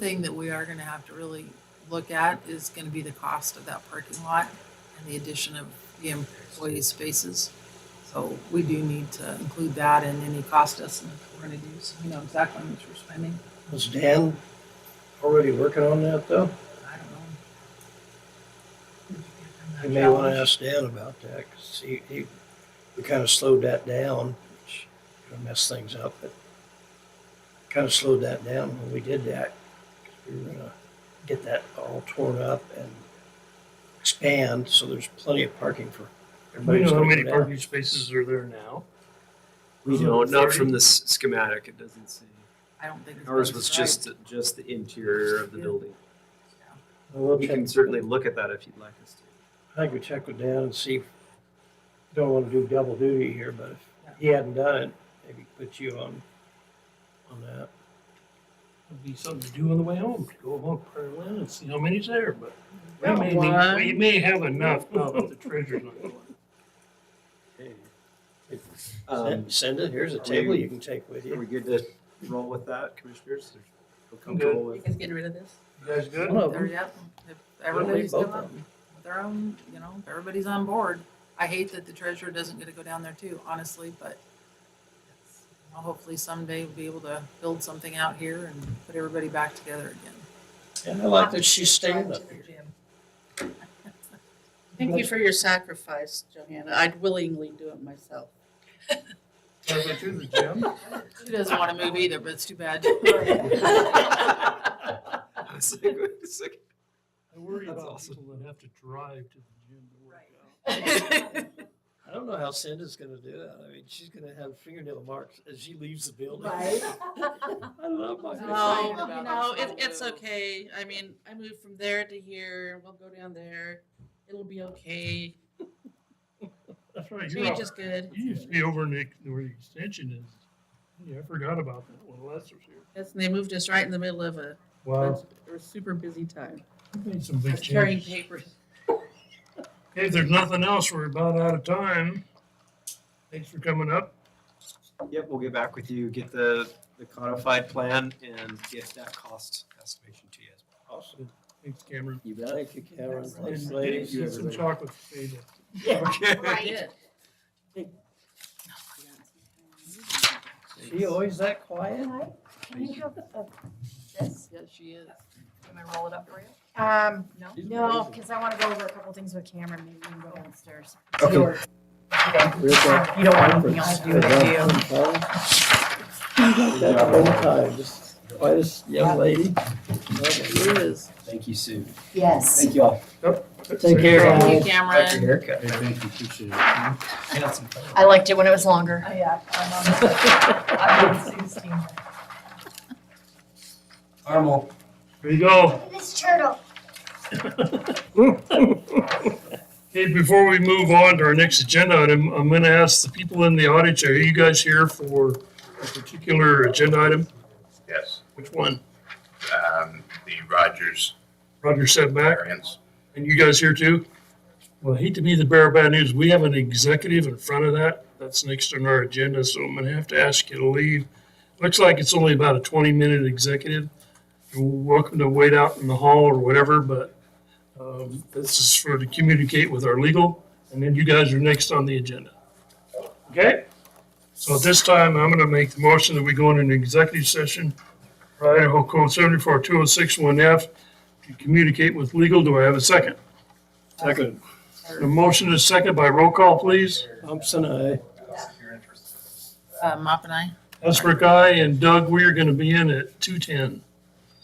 thing that we are gonna have to really look at is gonna be the cost of that parking lot and the addition of the employee spaces. So we do need to include that in any cost estimate that we're gonna do, so we know exactly how much we're spending. Was Dan already working on that though? I don't know. You may want to ask Dan about that, 'cause he, he, we kind of slowed that down, which kind of messed things up, but kind of slowed that down when we did that. 'cause We were gonna get that all torn up and expand, so there's plenty of parking for Do everybody. you who's know how gonna many come down. parking spaces are there now? We don't, not from this schematic, it doesn't say. I don't think. it's Ours gonna was strike. just, just the interior of the building. Well, We we'll check- can certainly look at that if you'd like us to. I think we check with Dan and see, if- don't want to do double duty here, but if he hadn't done it, maybe put you on, on that. It'd be something to do on the way home, to go along Prairie Land and see how many's there, but we Got may, one. need- we may have enough now that the treasurer's not going. Um, Send- Send it, here's a are table we- you can take with Are you. we good to roll with that, commissioners? Feel I'm good. comfortable with- guys getting rid of this? You guys good? One of There, them. yep. If Don't leave everybody's both doing of them. their own, you know, if everybody's on board. I hate that the treasurer doesn't get to go down there too, honestly, but it's- well, hopefully someday we'll be able to build something out here and put everybody back together again. And I like that she's staying up here. Thank you for your sacrifice, Johanna. I'd willingly do it myself. Wanna go to the gym? She doesn't want to move either, but it's too bad. Oh, I was like, wait a second. I worry That's about awesome. people that have to drive to the gym to work out. I don't know how Cinda's gonna do that. I mean, she's gonna have fingernail marks as she leaves the building. I love my. No. Oh. goodness. about No, that. it, it's okay. I mean, I moved from there to here. We'll go down there. It'll be okay. That's right, you're, Change out- is good. you used to be over in the, where the extension is. Yeah, I forgot about that when Lester's here. Yes, and they moved us right in the middle of a, Wow, a super busy time. made some big Carrying changes. papers. Hey, If there's nothing else, we're about out of time. Thanks for coming up. Yep, we'll get back with you, get the, the codified plan and get that cost estimation to you as well. Awesome. Thanks, Cameron. You Thank you, Karen. Thanks, Thanks, And uh, ladies. get some chocolate for Ada. Okay. Yeah. She always that quiet? Can you have a- this? Yes, she is. Can I roll it up for you? Um, No? no, because I want to go over a couple things with Cameron, maybe we can go downstairs. Okay. Or- Uh, You don't want anything else to do with you. That whole time, just quietest young lady. She is. Thank you, Sue. Yes. Thank you all. Take care. Thank you, Back to Cameron. your haircut. Thank you, appreciate it. Handsome. I liked it when it was longer. Yeah. I'm on Sue's team. Armel. There you go. This turtle. Hey, before we move on to our next agenda item, I'm gonna ask the people in the audience, are you guys here for a particular agenda item? Yes, Which one? um, the Rogers Roger setback? variance. And you guys here too? Well, I hate to be the bearer of bad news. We have an executive in front of that. That's next on our agenda, so I'm gonna have to ask you to leave. Looks like it's only about a twenty minute executive. You're welcome to wait out in the hall or whatever, but um, this is for to communicate with our legal, and then you guys are next on the agenda. Okay? So at this time, I'm gonna make the motion that we go into an executive session. for Idaho Code seventy-four two oh six one F to communicate with legal. Do I have a second? Second. The motion is second by roll call, please. Thompson, I. Uh, Mop and I. Esper Guy and Doug, we are going to be in at 2:10.